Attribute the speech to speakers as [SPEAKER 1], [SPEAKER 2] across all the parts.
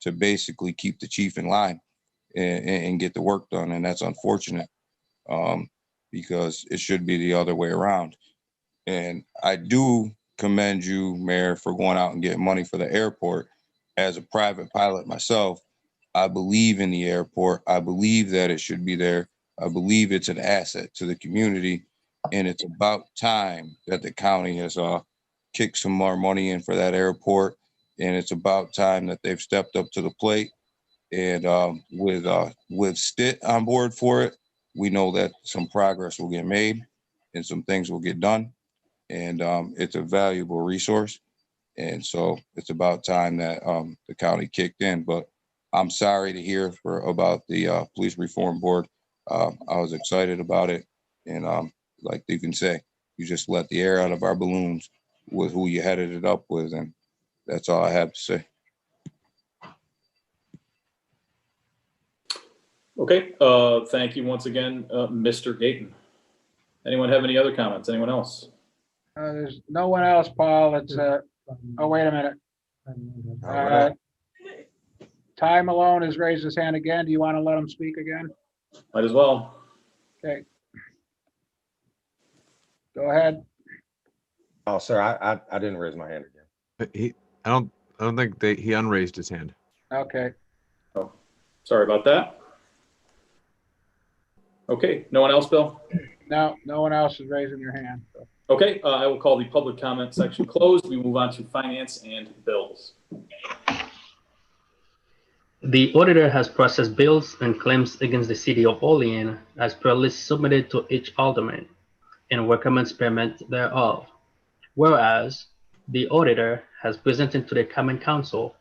[SPEAKER 1] to basically keep the chief in line and, and, and get the work done. And that's unfortunate um, because it should be the other way around. And I do commend you, Mayor, for going out and getting money for the airport. As a private pilot myself, I believe in the airport. I believe that it should be there. I believe it's an asset to the community. And it's about time that the county has uh, kicked some more money in for that airport. And it's about time that they've stepped up to the plate. And um, with uh, with Stitt on board for it, we know that some progress will get made and some things will get done. And um, it's a valuable resource. And so it's about time that um, the county kicked in. But I'm sorry to hear for about the uh, police reform board. Uh, I was excited about it, and um, like you can say, you just let the air out of our balloons with who you headed it up with, and that's all I have to say.
[SPEAKER 2] Okay, uh, thank you once again, uh, Mr. Gaten. Anyone have any other comments? Anyone else?
[SPEAKER 3] Uh, There's no one else, Paul. It's, uh, oh, wait a minute.
[SPEAKER 1] All right.
[SPEAKER 3] Uh, Ty Malone has raised his hand again. Do you want to let him speak again?
[SPEAKER 2] Might as well.
[SPEAKER 3] Okay. Go ahead.
[SPEAKER 4] Oh, sir, I, I, I didn't raise my hand again.
[SPEAKER 5] But He, I don't, I don't think they, he unraised his hand.
[SPEAKER 3] Okay.
[SPEAKER 2] Sorry about that. Okay, no one else, Bill?
[SPEAKER 3] No, no one else is raising their hand.
[SPEAKER 2] Okay, uh, I will call the public comment section closed. We move on to finance and bills.
[SPEAKER 6] The auditor has processed bills and claims against the city of Olean as per list submitted to each alderman and recommends payment thereof. Whereas the auditor has presented to the common council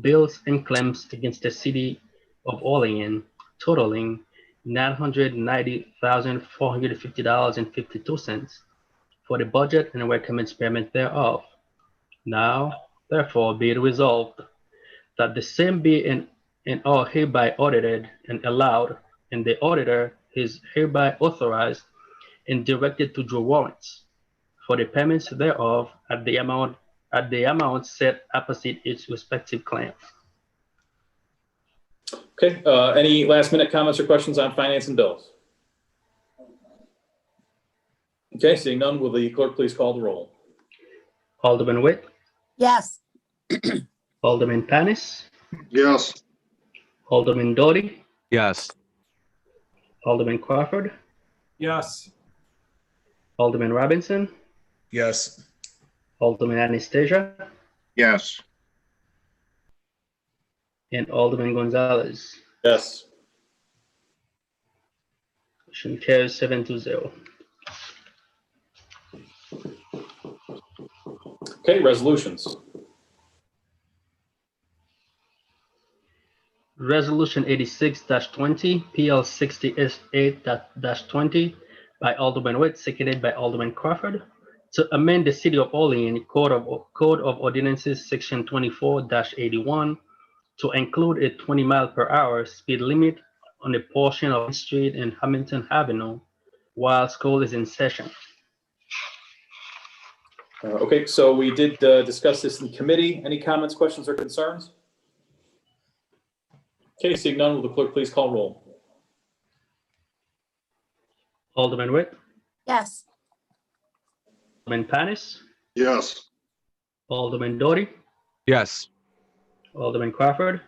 [SPEAKER 6] bills and claims against the city of Olean totaling nine hundred ninety thousand four hundred fifty dollars and fifty-two cents for the budget and recommends payment thereof. Now, therefore, be it resolved that the same be and and are hereby audited and allowed, and the auditor is hereby authorized and directed to draw warrants for the payments thereof at the amount at the amount set opposite its respective claim.
[SPEAKER 2] Okay, uh, any last minute comments or questions on finance and bills? Okay, seeing none, will the clerk please call the roll?
[SPEAKER 6] Alderman Witt,
[SPEAKER 7] Yes,
[SPEAKER 6] Alderman Panis,
[SPEAKER 8] Yes,
[SPEAKER 6] Alderman Doughty,
[SPEAKER 5] Yes,
[SPEAKER 6] Alderman Crawford,
[SPEAKER 9] Yes.
[SPEAKER 6] Alderman Robinson,
[SPEAKER 9] Yes.
[SPEAKER 6] Alderman Anastasia,
[SPEAKER 8] yes,
[SPEAKER 6] and Alderman Gonzalez.
[SPEAKER 2] Yes.
[SPEAKER 6] Motion carries seven to zero.
[SPEAKER 2] Okay, resolutions.
[SPEAKER 6] Resolution eighty-six twenty, PL sixty-eight twenty by Alderman Witt, seconded by Alderman Crawford, to amend the City of Olean Code of, Code of Ordinances, Section twenty-four eighty-one, to include a twenty mile per hour speed limit on a portion of the street in Hamilton Avenue while school is in session.
[SPEAKER 2] Uh, Okay, so we did uh, discuss this in committee. Any comments, questions, or concerns? Okay, seeing none, will the clerk please call roll?
[SPEAKER 6] Alderman Witt,
[SPEAKER 7] yes,
[SPEAKER 6] Alderman Panis,
[SPEAKER 8] yes,
[SPEAKER 6] Alderman Doughty,
[SPEAKER 5] yes,
[SPEAKER 6] Alderman Crawford,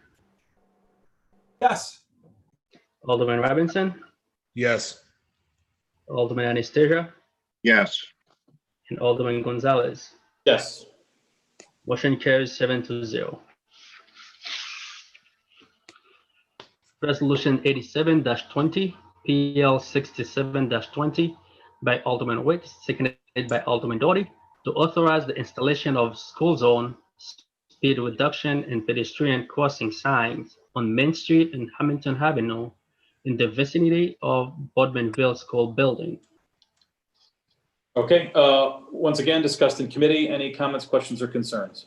[SPEAKER 9] Yes.
[SPEAKER 6] Alderman Robinson,
[SPEAKER 9] Yes.
[SPEAKER 6] Alderman Anastasia,
[SPEAKER 8] yes,
[SPEAKER 6] and Alderman Gonzalez.
[SPEAKER 2] Yes.
[SPEAKER 6] Motion carries seven to zero. Resolution eighty-seven twenty, PL sixty-seven twenty by Alderman Witt, seconded by Alderman Doughty, to authorize the installation of school zone speed reduction and pedestrian crossing signs on Main Street and Hamilton Avenue in the vicinity of Bodmanville School Building.
[SPEAKER 2] Okay, uh, once again, discussed in committee. Any comments, questions, or concerns?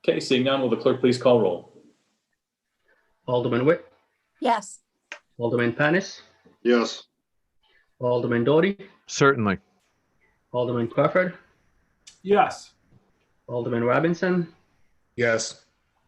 [SPEAKER 2] Okay, seeing none, will the clerk please call roll?
[SPEAKER 6] Alderman Witt,
[SPEAKER 7] yes,
[SPEAKER 6] Alderman Panis,
[SPEAKER 8] yes,
[SPEAKER 6] Alderman Doughty,
[SPEAKER 5] certainly.
[SPEAKER 6] Alderman Crawford,
[SPEAKER 9] Yes.
[SPEAKER 6] Alderman Robinson,
[SPEAKER 9] Yes.